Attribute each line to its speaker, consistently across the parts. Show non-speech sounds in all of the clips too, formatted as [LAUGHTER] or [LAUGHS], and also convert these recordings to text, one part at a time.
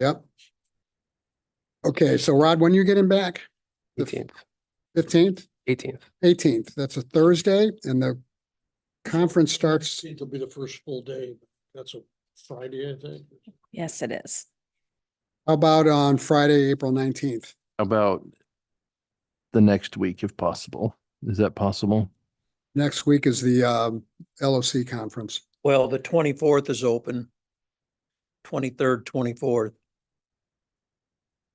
Speaker 1: Yep. Okay, so Rod, when you getting back? The
Speaker 2: Eighteenth,
Speaker 1: Fifteenth,
Speaker 2: eighteenth.
Speaker 1: eighteenth, that's a Thursday and the conference starts,
Speaker 3: It'll be the first full day. That's a Friday, I think.
Speaker 4: Yes, it is.
Speaker 1: how about on Friday, April nineteenth?
Speaker 5: about the next week if possible? Is that possible?
Speaker 1: Next week is the um LOC conference.
Speaker 6: Well, the twenty-fourth is open. Twenty-third, twenty-fourth.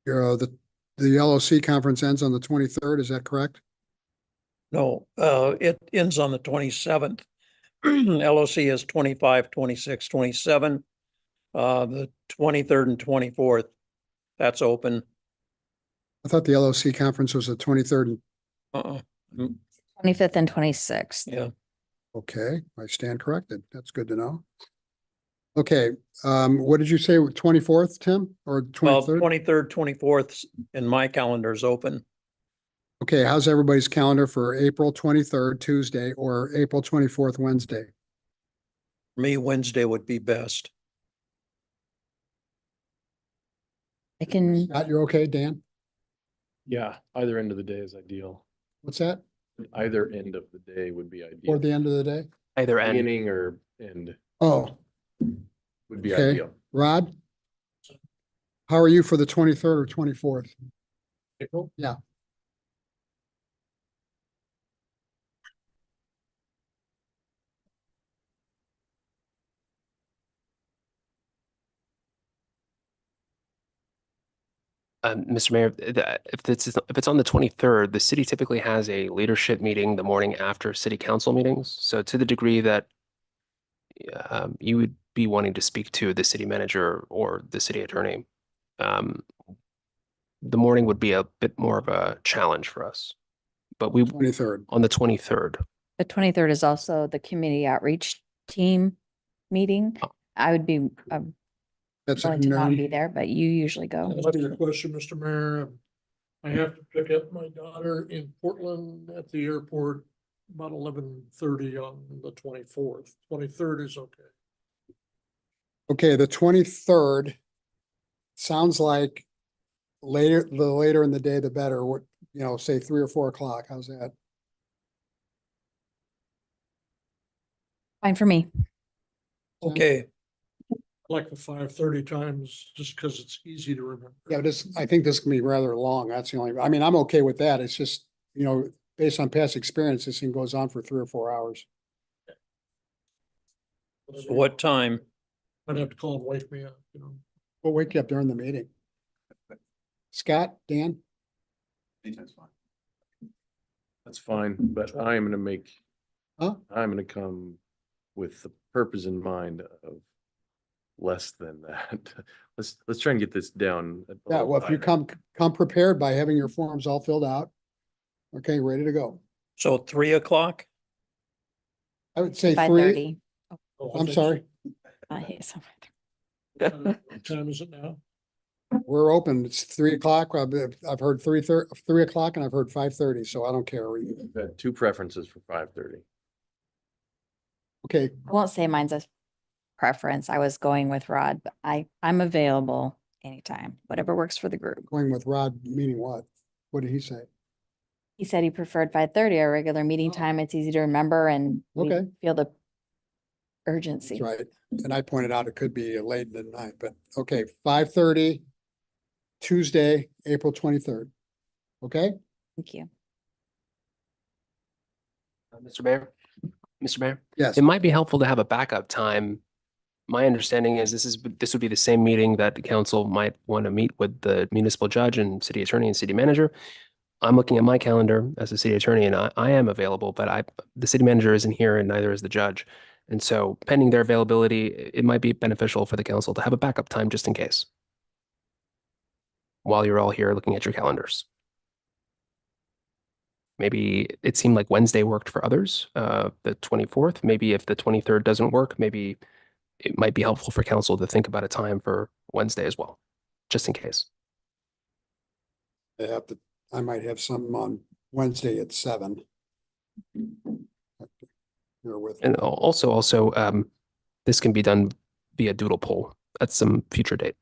Speaker 1: You know, uh, the, the LOC conference ends on the twenty-third, is that correct?
Speaker 6: No, uh, it ends on the twenty-seventh. [CLEARS THROAT] LOC is 25, 26, 27. Uh, the twenty-third and twenty-fourth, that's open.
Speaker 1: I thought the LOC conference was the twenty-third and
Speaker 6: Uh-uh,
Speaker 4: Twenty-fifth and twenty-sixth.
Speaker 6: yeah.
Speaker 1: Okay, I stand corrected. That's good to know. Okay, um, what did you say, twenty-fourth, Tim, or
Speaker 6: Well,
Speaker 1: twenty-third?
Speaker 6: twenty-third, twenty-fourth in my calendar is open.
Speaker 1: Okay, how's everybody's calendar for April twenty-third, Tuesday, or April twenty-fourth, Wednesday?
Speaker 6: For Me, Wednesday would be best.
Speaker 4: I can,
Speaker 1: Scott, you're okay, Dan?
Speaker 7: Yeah, either end of the day is ideal.
Speaker 1: What's that?
Speaker 7: Either end of the day would be ideal.
Speaker 1: Or the end of the day?
Speaker 2: Either end.
Speaker 7: Beginning or end
Speaker 1: Oh,
Speaker 7: would be
Speaker 1: Okay.
Speaker 7: ideal.
Speaker 1: Rod? How are you for the twenty-third or twenty-fourth?
Speaker 3: April?
Speaker 1: Yeah.
Speaker 2: Um, Mr. Mayor, if that- if this is, if it's on the twenty-third, the city typically has a leadership meeting the morning after city council meetings. So to the degree that um, you would be wanting to speak to the city manager or the city attorney, um, the morning would be a bit more of a challenge for us. But we,
Speaker 1: Twenty-third.
Speaker 2: on the twenty-third,
Speaker 4: the twenty-third is also the community outreach team meeting.
Speaker 1: Oh.
Speaker 4: I would be, I'm
Speaker 1: That's at
Speaker 4: going to not be
Speaker 1: noon.
Speaker 4: there, but you usually go.
Speaker 3: That's your question, Mr. Mayor. Um, I have to pick up my daughter in Portland at the airport about eleven thirty on the twenty-fourth. Twenty-third is okay.
Speaker 1: Okay, the twenty-third. Sounds like later, the later in the day, the better. What, you know, say three or four o'clock. How's that?
Speaker 4: Fine for me.
Speaker 1: Yeah.
Speaker 6: Okay,
Speaker 3: Like the five thirty times, just because it's easy to remember.
Speaker 1: Yeah, but this, I think this can be rather long. That's the only, I mean, I'm okay with that. It's just, you know, based on past experience, this thing goes on for three or four hours.
Speaker 6: so what time?
Speaker 3: I'd have to call and wake me up, you know.
Speaker 1: We'll wake you up during the meeting. Scott, Dan,
Speaker 7: Anytime's fine. That's fine, but I am gonna make,
Speaker 1: Huh?
Speaker 7: I'm gonna come with the purpose in mind of less than that. [LAUGHS] Let's, let's try and get this down. a
Speaker 1: yeah,
Speaker 7: little
Speaker 1: well, if you
Speaker 7: tighter.
Speaker 1: come, come prepared by having your forms all filled out. Okay, ready to go.
Speaker 6: So three o'clock?
Speaker 1: I would say
Speaker 4: Five
Speaker 1: three,
Speaker 4: thirty.
Speaker 3: Oh, I
Speaker 1: I'm
Speaker 3: think-
Speaker 1: sorry,
Speaker 3: Uh, What time is it now?
Speaker 1: we're open. It's three o'clock. I've, I've heard three thir- three o'clock and I've heard five thirty, so I don't care.
Speaker 7: We've had Two preferences for five thirty.
Speaker 1: Okay,
Speaker 4: I won't say mine's a preference. I was going with Rod, but I, I'm available anytime, whatever works for the group.
Speaker 1: going with Rod, meaning what? What did he say?
Speaker 4: He said he preferred five thirty, our regular meeting
Speaker 1: Oh.
Speaker 4: time. It's easy to remember and we
Speaker 1: Okay.
Speaker 4: feel the urgency.
Speaker 1: That's right. And I pointed out it could be late in the night, but okay, five thirty, Tuesday, April twenty-third. Okay,
Speaker 4: Thank you.
Speaker 2: Mr. Uh, Mayor, Mr. Mayor.
Speaker 1: yes,
Speaker 2: It might be helpful to have a backup time. My understanding is this is, this would be the same meeting that the council might want to meet with the municipal judge and city attorney and city manager. I'm looking at my calendar as a city attorney and I, I am available, but I, the city manager isn't here and neither is the judge. And so pending their availability, i- it might be beneficial for the council to have a backup time just in case. While you're all here looking at your calendars. Maybe it seemed like Wednesday worked for others, uh, the 24th. Maybe if the 23rd doesn't work, maybe it might be helpful for council to think about a time for Wednesday as well, just in case.
Speaker 1: I have to, I might have something on Wednesday at seven. You're with,
Speaker 2: And al- also, also, um, this can be done via doodle poll at some future date.